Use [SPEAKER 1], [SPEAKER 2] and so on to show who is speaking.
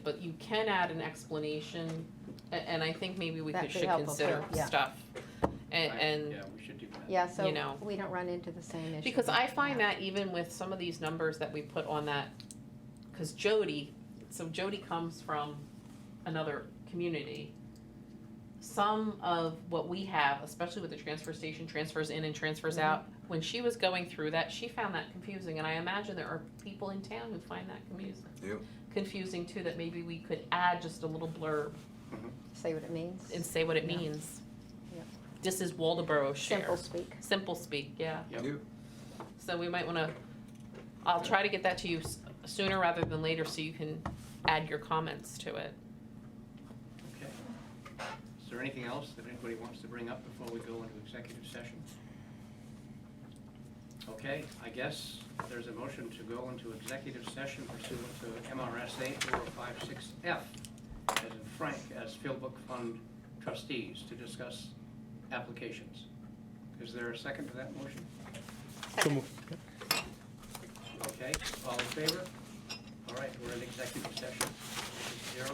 [SPEAKER 1] But you can add an explanation, a- and I think maybe we
[SPEAKER 2] That'd
[SPEAKER 1] could,
[SPEAKER 2] be
[SPEAKER 1] should
[SPEAKER 2] helpful, too,
[SPEAKER 1] consider
[SPEAKER 2] yeah.
[SPEAKER 1] stuff. And,
[SPEAKER 3] Right,
[SPEAKER 1] and
[SPEAKER 3] Yeah, we should do that.
[SPEAKER 2] Yeah,
[SPEAKER 1] You
[SPEAKER 2] so
[SPEAKER 1] know.
[SPEAKER 2] we don't run into the same issue.
[SPEAKER 1] Because I find that even with some of these numbers that we put on that, because Jody, so Jody comes from another community. Some of what we have, especially with the transfer station, transfers in and transfers
[SPEAKER 2] Mm-hmm.
[SPEAKER 1] out, when she was going through that, she found that confusing, and I imagine there are people in town who find that confusing.
[SPEAKER 4] Yep.
[SPEAKER 1] Confusing too, that maybe we could add just a little blurb
[SPEAKER 3] Mm-hmm.
[SPEAKER 2] Say what it means.
[SPEAKER 1] and say what it
[SPEAKER 2] Yeah.
[SPEAKER 1] means.
[SPEAKER 2] Yep.
[SPEAKER 1] This is Waldeboro share.
[SPEAKER 2] Simple speak.
[SPEAKER 1] Simple speak, yeah.
[SPEAKER 3] Yep.
[SPEAKER 4] Yep.
[SPEAKER 1] So we might wanna, I'll try to get that to you s- sooner rather than later so you can add your comments to it.
[SPEAKER 3] Okay. Is there anything else that anybody wants to bring up before we go into executive session? Okay, I guess there's a motion to go into executive session pursuant to MRSA 456F, as in Frank, as Field Book Fund trustees, to discuss applications. Is there a second to that motion? Okay, all in favor? All right, we're in executive session. This is zero